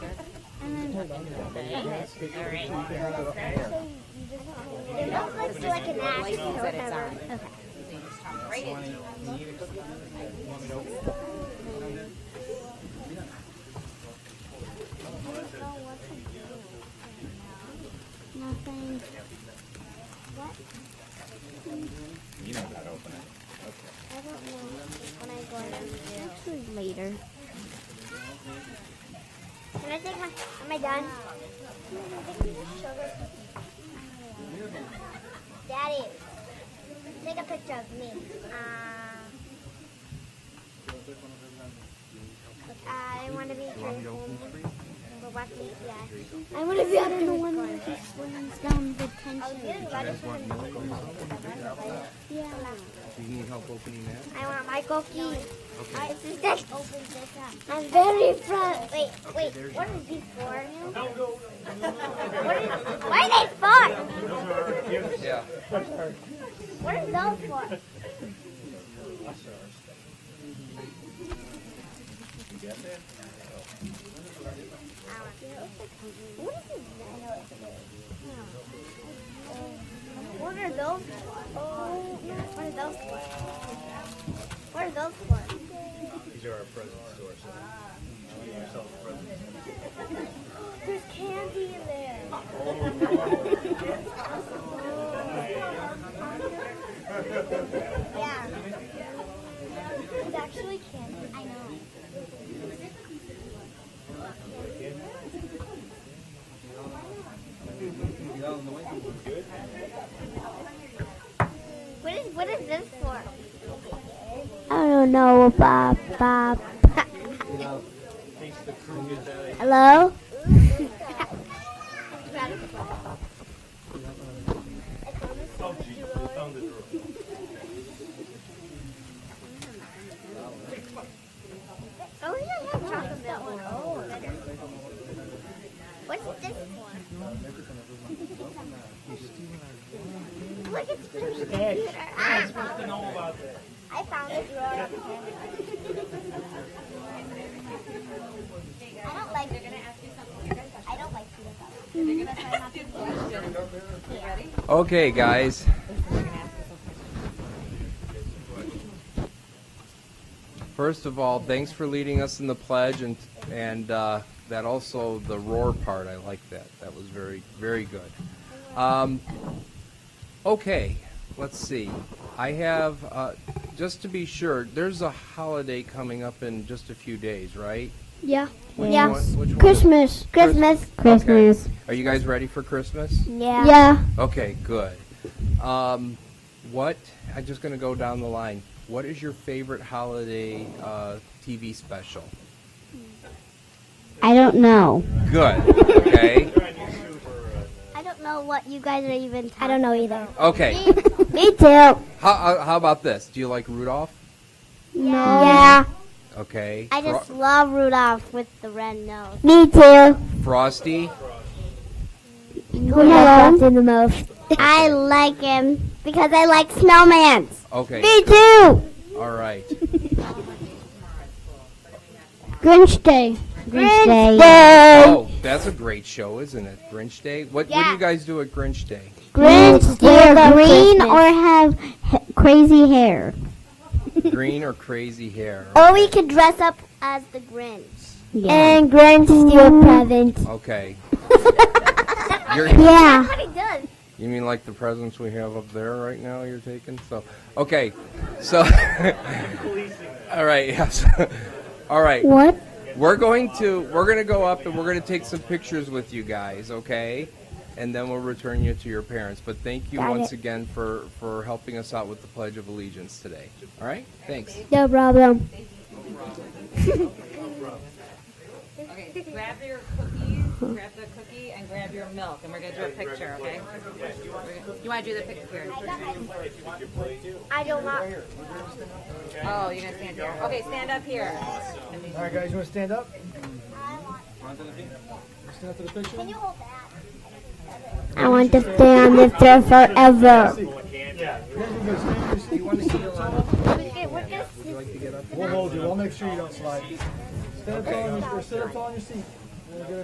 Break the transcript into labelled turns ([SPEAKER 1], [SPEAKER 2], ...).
[SPEAKER 1] It looks like, it's like an axe or whatever. Okay. Nothing. What?
[SPEAKER 2] You know how to open it.
[SPEAKER 1] I don't know when I'm going to. Actually, later. Can I take my? Am I done? Daddy, take a picture of me. Uh, I want to be I want to be up in the one where he slams down the tension. Yeah.
[SPEAKER 2] Do you need help opening that?
[SPEAKER 1] I want my cookie. I, this is this. I'm very proud. Wait, wait. What is these for? what is, why are they for?
[SPEAKER 2] Yeah.
[SPEAKER 1] What are those for? What is this? What are those for? Oh, what are those for? What are those for?
[SPEAKER 2] These are our present sources.
[SPEAKER 1] There's candy in there. yeah. It's actually candy. I know. What is what is this for? I don't know, Bob. Bob. Hello. Oh, Oh, we don't have chocolate milk. What's this for? Look, it's Blue's computer. Ah! I found this drawer. I don't like. I don't like peanut butter.
[SPEAKER 2] Okay, guys. First of all, thanks for leading us in the pledge and and uh, that also the roar part. I like that. That was very very good. Um, okay, let's see. I have uh, just to be sure. There's a holiday coming up in just a few days, right?
[SPEAKER 3] Yeah.
[SPEAKER 2] Which
[SPEAKER 1] Yeah.
[SPEAKER 2] one- which one?
[SPEAKER 3] Christmas.
[SPEAKER 1] Christmas.
[SPEAKER 3] Christmas.
[SPEAKER 2] Are you guys ready for Christmas?
[SPEAKER 1] Yeah.
[SPEAKER 3] Yeah.
[SPEAKER 2] Okay, good. Um, what? I'm just going to go down the line. What is your favorite holiday uh, TV special?
[SPEAKER 3] I don't know.
[SPEAKER 2] Good. Okay.
[SPEAKER 1] I don't know what you guys are even. Talking I don't know either.
[SPEAKER 2] Okay.
[SPEAKER 3] Me too. No.
[SPEAKER 2] How, uh, how, how about this? Do you like Rudolph?
[SPEAKER 3] Yeah.
[SPEAKER 2] Okay.
[SPEAKER 1] I just
[SPEAKER 2] Fro-
[SPEAKER 1] love Rudolph with the red nose.
[SPEAKER 3] Me too.
[SPEAKER 2] Frosty.
[SPEAKER 3] We have in the most.
[SPEAKER 1] I like him because I like snowmans.
[SPEAKER 2] Okay.
[SPEAKER 3] Me too.
[SPEAKER 2] All right.
[SPEAKER 3] Grinch Day.
[SPEAKER 1] Grinch Day.
[SPEAKER 2] Oh, that's a great show, isn't it? Grinch Day. What What do
[SPEAKER 1] Yeah.
[SPEAKER 2] you guys do at Grinch Day?
[SPEAKER 3] Grinch
[SPEAKER 1] Grinch Day
[SPEAKER 3] Wear
[SPEAKER 1] for
[SPEAKER 3] green
[SPEAKER 1] Christmas.
[SPEAKER 3] or have ha- crazy hair.
[SPEAKER 2] Green or crazy hair?
[SPEAKER 1] Or we could dress up as the Grinch.
[SPEAKER 3] And Grinch steal presents.
[SPEAKER 2] Okay.
[SPEAKER 1] That's
[SPEAKER 2] You're,
[SPEAKER 3] Yeah.
[SPEAKER 1] what he does.
[SPEAKER 2] You mean like the presents we have up there right now you're taking? So, okay. So, all right, yes. all right.
[SPEAKER 3] What?
[SPEAKER 2] We're going to, we're going to go up and we're going to take some pictures with you guys, okay? And then we'll return you to your parents. But thank you once again for, for helping us out with the Pledge of Allegiance today. All right? Thanks.
[SPEAKER 3] No problem.
[SPEAKER 4] Okay, grab your cookies, grab the cookie, and grab your milk, and we're gonna do a picture, okay? We're gonna- You wanna do the picture?
[SPEAKER 1] I don't want.
[SPEAKER 4] Oh, you're gonna stand here. Okay, stand up here.
[SPEAKER 5] All right, guys, you want to stand up?
[SPEAKER 1] I want.
[SPEAKER 5] Stand up to the picture.
[SPEAKER 1] Can you hold that?
[SPEAKER 3] I want to stay on this chair forever.
[SPEAKER 5] Do you want to sit up tall?
[SPEAKER 1] We're gonna, we're gonna
[SPEAKER 5] We'll hold you. I'll make sure you don't slide. Stand up tall on your, or sit up tall on your seat. We'll get